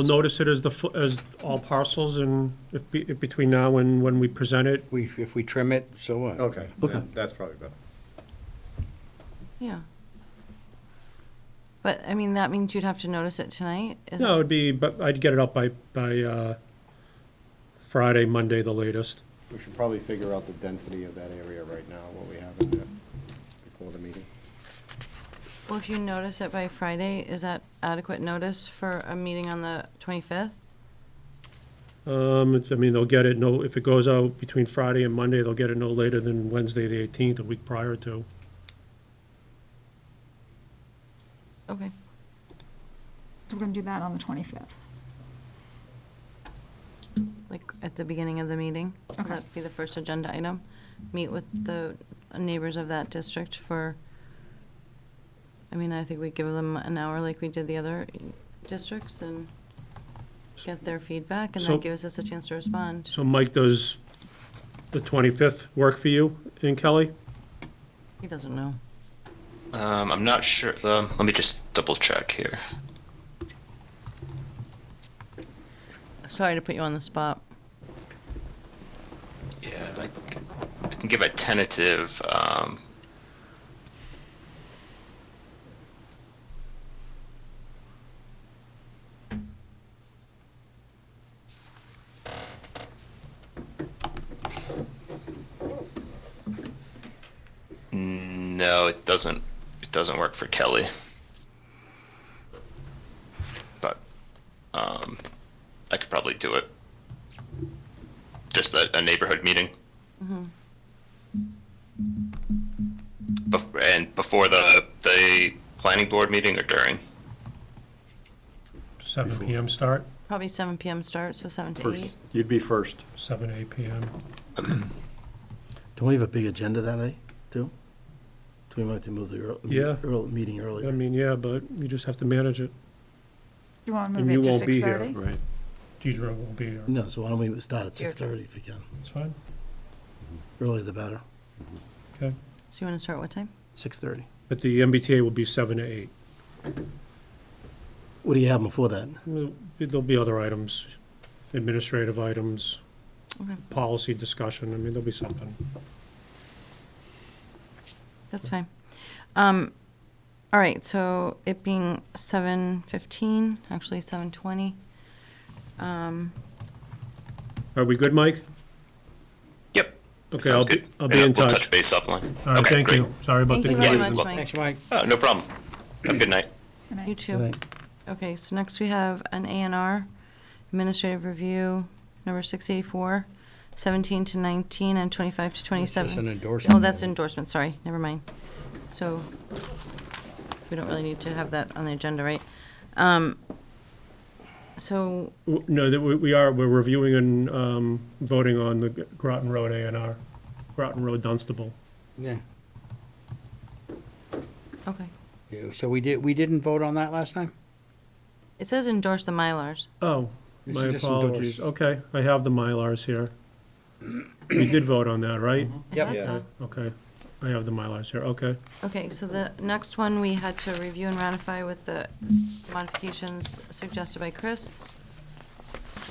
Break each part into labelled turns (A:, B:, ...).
A: We'll notice it as the, fu- as all parcels and if, be- if between now and when we present it,
B: We, if we trim it, so what?
C: Okay.
D: Okay.
C: yeah, That's probably better.
E: Yeah. But, I mean, that means you'd have to notice it tonight? is it?
A: no, it'd be, but I'd get it up by, by, uh, Friday, Monday, the latest.
C: We should probably figure out the density of that area right now, what we have in there before the meeting.
E: Well, if you notice it by Friday, is that adequate notice for a meeting on the 25th?
A: Um, it's, I mean, they'll get it no, if it goes out between Friday and Monday, they'll get it no later than Wednesday, the eighteenth, a week prior to.
E: Okay.
F: We're going to do that on the 25th.
E: Like, at the beginning of the meeting?
F: Okay.
E: That'd be the first agenda item. Meet with the neighbors of that district for, I mean, I think we give them an hour like we did the other districts and get their feedback, and
A: So-
E: that gives us a chance to respond.
A: So Mike, does the twenty-fifth work for you and Kelly?
E: He doesn't know.
G: Um, I'm not sure. Um, let me just double check here.
E: Sorry to put you on the spot.
G: Yeah, I, I can give a tentative. Um, no, it doesn't. It doesn't work for Kelly. But um, I could probably do it. Just a, a neighborhood meeting. Bef- and before the, the planning board meeting or during?
A: Seven PM start,
E: Probably seven PM start, so seven to eight.
D: First, you'd be first.
A: seven, eight PM.
H: Don't we have a big agenda that night, too? So we might have to move the earl- me-
A: Yeah.
H: earl- meeting
A: I
H: earlier.
A: mean, yeah, but you just have to manage it.
F: Do you want to
A: And
F: move
A: you
F: it to
A: won't be here.
F: 6:30?
D: Right.
A: Deidre will be here.
H: No, so why don't we start at 6:30 if we can?
A: It's fine.
H: Earlier the better.
A: Okay.
E: So you want to start what time?
H: 6:30.
A: But the MBTA will be seven to eight.
H: What do you have before that?
A: Well, There'll be other items, administrative items,
E: Okay,
A: policy discussion, I mean, there'll be something.
E: that's fine. Um, all right, so it being seven fifteen, actually seven twenty. Um,
A: Are we good, Mike?
G: Yep.
A: Okay,
G: sounds
A: I'll be,
G: good.
A: I'll be
G: And
A: in
G: We'll
A: touch.
G: touch base offline.
A: All right,
G: Okay,
A: thank
G: great.
A: you. Sorry about
E: thank
A: the
E: you
A: delay.
E: very much, Mike.
B: Thanks, Mike.
G: Oh, no problem. Have a good night.
F: Good night.
E: You too. Okay, so next we have an A and R, administrative review, number six eighty-four, seventeen to nineteen and twenty-five to twenty-seven.
B: It's just an endorsement.
E: Oh, that's endorsement, sorry, never mind. So, we don't really need to have that on the agenda, right? Um, so,
A: W- No, that we, we are, we're reviewing and, um, voting on the G- Groton Road A and R, Groton Road Dunstable.
B: Yeah.
E: okay.
B: Yeah, So we did, we didn't vote on that last time?
E: It says endorse the Mylars.
A: Oh,
B: This
A: my
B: is just
A: apologies.
B: endorsed.
A: Okay, I have the Mylars here. We did vote on that, right?
G: Mm-hmm.
E: I
B: Yep.
E: thought
C: Yeah.
E: so.
A: Okay, I have the Mylars here, okay.
E: Okay, so the next one, we had to review and ratify with the modifications suggested by Chris,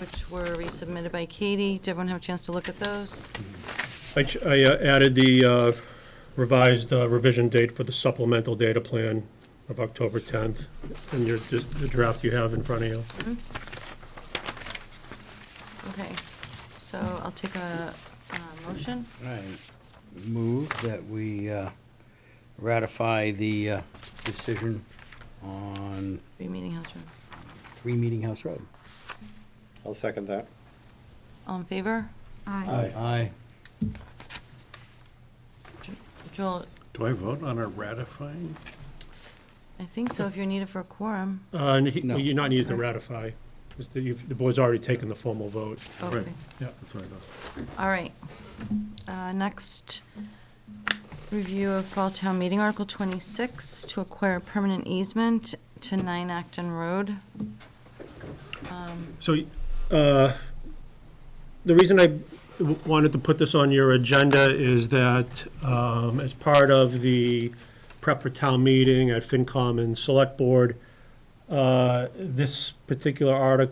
E: which were resubmitted by Katie. Did everyone have a chance to look at those?
A: I ch- I uh, added the uh, revised uh, revision date for the supplemental data plan of October 10th, and your, the draft you have in front of you.
E: Okay, so I'll take a, uh motion.
B: I move that we uh, ratify the uh, decision on
E: Three meeting house room.
B: Three Meeting House Road.
C: I'll second that.
E: All in favor?
F: Aye.
B: Aye.
E: Jo- Joel,
D: Do I vote on a ratifying?
E: I think so, if you're needed for a quorum.
A: Uh, and he-
B: No.
A: You're not needed to ratify, 'cause the you've- the board's already taken the formal vote.
E: Okay.
D: Right.
A: Yeah.
D: That's what I thought.
E: All right. Uh, Next, review of Fall Town Meeting Article 26 to acquire a permanent easement to 9 Acton Road.
A: So, uh, the reason I w- wanted to put this on your agenda is that, um, as part of the prep for town meeting at FinCom and Select Board, uh, this particular article